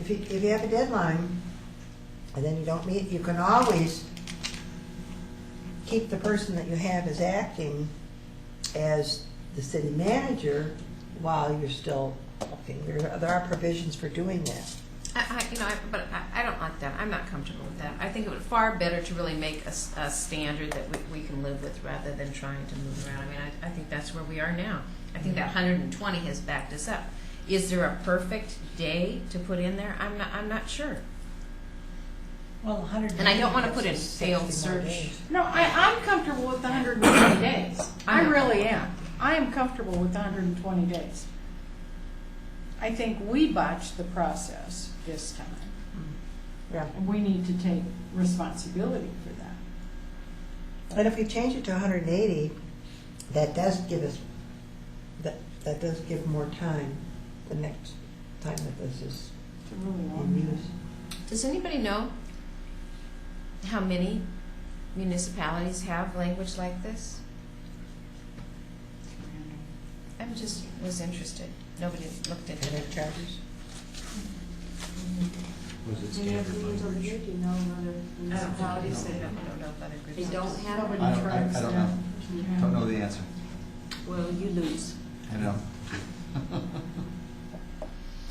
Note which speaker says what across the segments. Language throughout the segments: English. Speaker 1: if you, if you have a deadline, and then you don't meet, you can always keep the person that you have as acting as the city manager while you're still looking. There, are- there are provisions for doing that.
Speaker 2: I, I, you know, I, but I, I don't like that. I'm not comfortable with that. I think it would far better to really make a, s- a standard that we, we can live with rather than trying to move around. I mean, I, I think that's where we are now. I think that 120 has backed us up. Is there a perfect day to put in there? I'm not. I'm not sure.
Speaker 3: Well, 100.
Speaker 2: And I don't want to put in failed search.
Speaker 4: No, I, I'm comfortable with the hundred and twenty days. I
Speaker 2: I'm not.
Speaker 4: really am. I am comfortable with the hundred and twenty days. I think we botched the process this time,
Speaker 1: Yeah.
Speaker 4: and we need to take responsibility for that.
Speaker 1: And if we change it to hundred and eighty, that does give us, that, that does give more time the next time that this is
Speaker 4: It's a really long
Speaker 1: in use.
Speaker 4: time.
Speaker 2: Does anybody know how many municipalities have language like this? I am just was interested. Nobody looked at
Speaker 1: And
Speaker 2: it.
Speaker 1: it charges?
Speaker 5: Was it standard language?
Speaker 6: Do you know whether
Speaker 2: I don't know. I
Speaker 6: municipalities that
Speaker 2: don't know if other groups.
Speaker 6: they don't have it?
Speaker 5: I don't, I, I don't know.
Speaker 4: Yeah.
Speaker 5: Don't know the answer.
Speaker 6: Well, you lose.
Speaker 5: I know.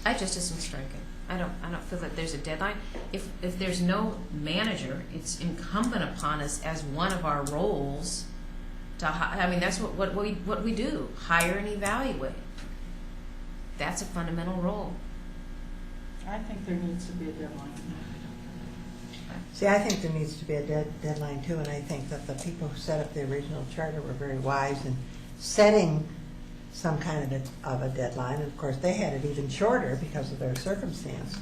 Speaker 2: I just isn't striking. I don't, I don't feel that there's a deadline. If, if there's no manager, it's incumbent upon us as one of our roles to hi, I mean, that's what, what we, what we do, hire and evaluate. That's a fundamental role.
Speaker 4: I think there needs to be a deadline.
Speaker 1: See, I think there needs to be a dead, deadline too, and I think that the people who set up the original charter were very wise in setting some kind of a, of a deadline, and of course, they had it even shorter because of their circumstance.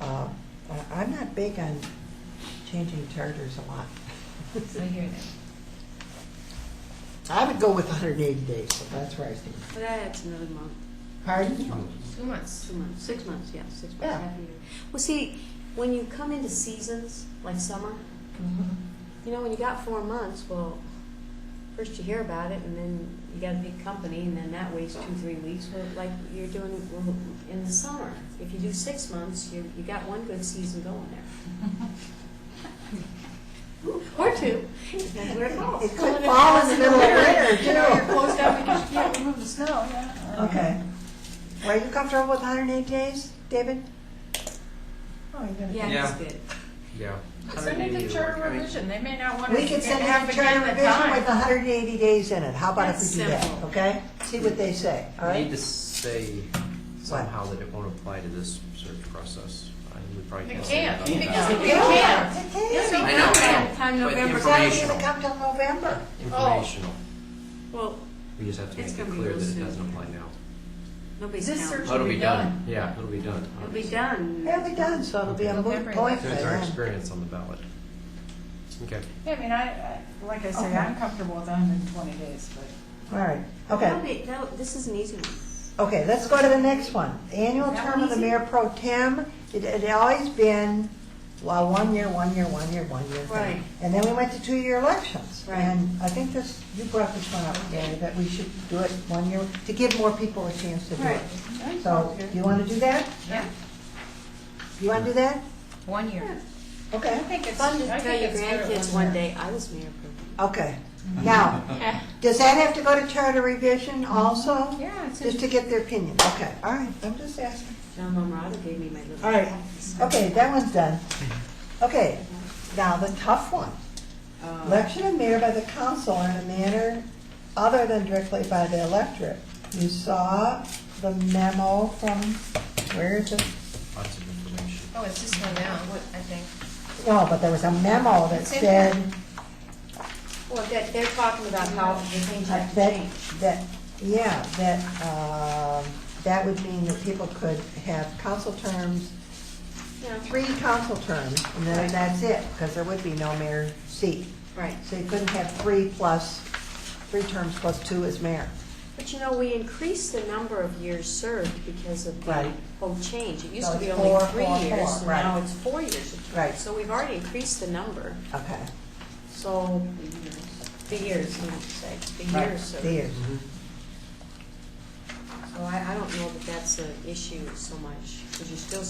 Speaker 1: Uh, I- I'm not big on changing charters a lot.
Speaker 2: I hear that.
Speaker 1: I would go with hundred and eighty days, so that's where I stand.
Speaker 6: But that's another month,
Speaker 1: Pardon?
Speaker 2: Two months.
Speaker 6: two months, six months, yeah, six months,
Speaker 1: Yeah.
Speaker 6: half a year. Well, see, when you come into seasons, like summer, you know, when you got four months, well, first you hear about it, and then you got a big company, and then that waits two, three weeks, Well, like you're doing in the summer. If you do six months, you, you got one good season going there. Or two, depends where it falls.
Speaker 1: It could fall in the middle of winter,
Speaker 4: You know, you're
Speaker 1: too.
Speaker 4: closed down because you can't remove the snow, yeah.
Speaker 1: Okay. Well, Are you comfortable with hundred and eighty days, David? Oh, you're gonna.
Speaker 6: Yeah,
Speaker 7: Yeah.
Speaker 6: it's good.
Speaker 7: Yeah.
Speaker 4: Send it to charter revision, they may not want to
Speaker 1: We could send out
Speaker 4: have
Speaker 1: a
Speaker 4: to
Speaker 1: charter
Speaker 4: give the
Speaker 1: revision
Speaker 4: time.
Speaker 1: with hundred and eighty days in it, how about if
Speaker 4: That's
Speaker 1: we do that,
Speaker 4: simple.
Speaker 1: okay? See what they say, all
Speaker 7: I need
Speaker 1: right?
Speaker 7: to say somehow that it won't apply to this search process. I would probably.
Speaker 4: It
Speaker 7: say
Speaker 4: can't,
Speaker 7: that.
Speaker 4: because it
Speaker 1: Yeah.
Speaker 4: can't.
Speaker 1: It
Speaker 4: It'll
Speaker 1: can't.
Speaker 4: be
Speaker 7: I know,
Speaker 4: done.
Speaker 6: Time
Speaker 7: But
Speaker 6: November.
Speaker 1: It's not even
Speaker 7: Informational.
Speaker 1: come till November.
Speaker 7: Informational.
Speaker 6: Well,
Speaker 7: We just have to
Speaker 6: It's
Speaker 7: make it
Speaker 6: gonna be
Speaker 7: clear
Speaker 6: real
Speaker 7: that it
Speaker 6: soon.
Speaker 7: doesn't apply now.
Speaker 6: nobody's
Speaker 4: This
Speaker 6: counting.
Speaker 4: search-
Speaker 7: Oh, It'll
Speaker 4: be
Speaker 7: be done. Yeah, it'll be done.
Speaker 6: It'll be done.
Speaker 1: It'll be done, so it'll be a moot
Speaker 2: November.
Speaker 1: point by
Speaker 7: Since our
Speaker 1: then.
Speaker 7: experience on the ballot. Okay.
Speaker 4: Yeah, I mean, I, I, like I say,
Speaker 1: Okay.
Speaker 4: I'm comfortable with hundred and twenty days, but.
Speaker 1: All right,
Speaker 6: That'll
Speaker 1: okay,
Speaker 6: be- that'll- this is an easy one.
Speaker 1: okay, let's go to the next one. Annual
Speaker 4: That
Speaker 1: term
Speaker 4: one
Speaker 1: of the
Speaker 4: easy?
Speaker 1: mayor pro tem, it had always been, well, one year, one year, one year, one year. thing.
Speaker 6: Right.
Speaker 1: And then we went to two-year elections.
Speaker 6: Right.
Speaker 1: And I think this, you brought this one up, Danny, that we should do it one year, to give more people a chance to do it.
Speaker 6: Right.
Speaker 1: So, you wanna do that?
Speaker 2: Yeah,
Speaker 1: You wanna do that?
Speaker 2: one year.
Speaker 1: Okay.
Speaker 4: I think it's,
Speaker 6: Fun to
Speaker 4: I
Speaker 6: tell
Speaker 4: think
Speaker 6: your
Speaker 4: it's good at
Speaker 6: grandkids one day, I was mayor pro tem."
Speaker 1: Okay, now, does that have to go to charter revision also?
Speaker 2: Yeah, it's
Speaker 1: Just to get their opinion, okay, all right, I'm just asking.
Speaker 6: John Momorado gave me my little.
Speaker 1: All right, okay, that one's done. Okay, now the tough one.
Speaker 2: Oh.
Speaker 1: Election of mayor by the council in a manner other than directly by the electorate. You saw the memo from, where is it?
Speaker 7: Lots of information.
Speaker 2: Oh, it's just one now, what, I think.
Speaker 1: No, but there was a memo that
Speaker 2: It's in
Speaker 1: said
Speaker 6: Well, they're, they're talking about how the things
Speaker 1: Uh,
Speaker 6: have to
Speaker 1: That,
Speaker 6: change.
Speaker 1: that, yeah, that, um, that would mean that people could have council terms,
Speaker 6: Yeah.
Speaker 1: three council terms, and then
Speaker 6: Right.
Speaker 1: that's it, because there would be no mayor seat.
Speaker 6: Right,
Speaker 1: So you couldn't have three plus, three terms plus two as mayor.
Speaker 6: but you know, we increased the number of years served because of the
Speaker 1: Right.
Speaker 6: whole change. It used
Speaker 1: So
Speaker 6: to be
Speaker 1: it's
Speaker 6: only
Speaker 1: four,
Speaker 6: three
Speaker 1: four,
Speaker 6: years,
Speaker 1: four,
Speaker 6: and
Speaker 1: right.
Speaker 6: now it's four years.
Speaker 1: Right.
Speaker 6: So we've already increased the number,
Speaker 1: Okay.
Speaker 6: so. The years, I meant to say, the
Speaker 1: Right,
Speaker 6: years served.
Speaker 1: The years.
Speaker 6: So I, I don't know that that's an issue so much, because you're still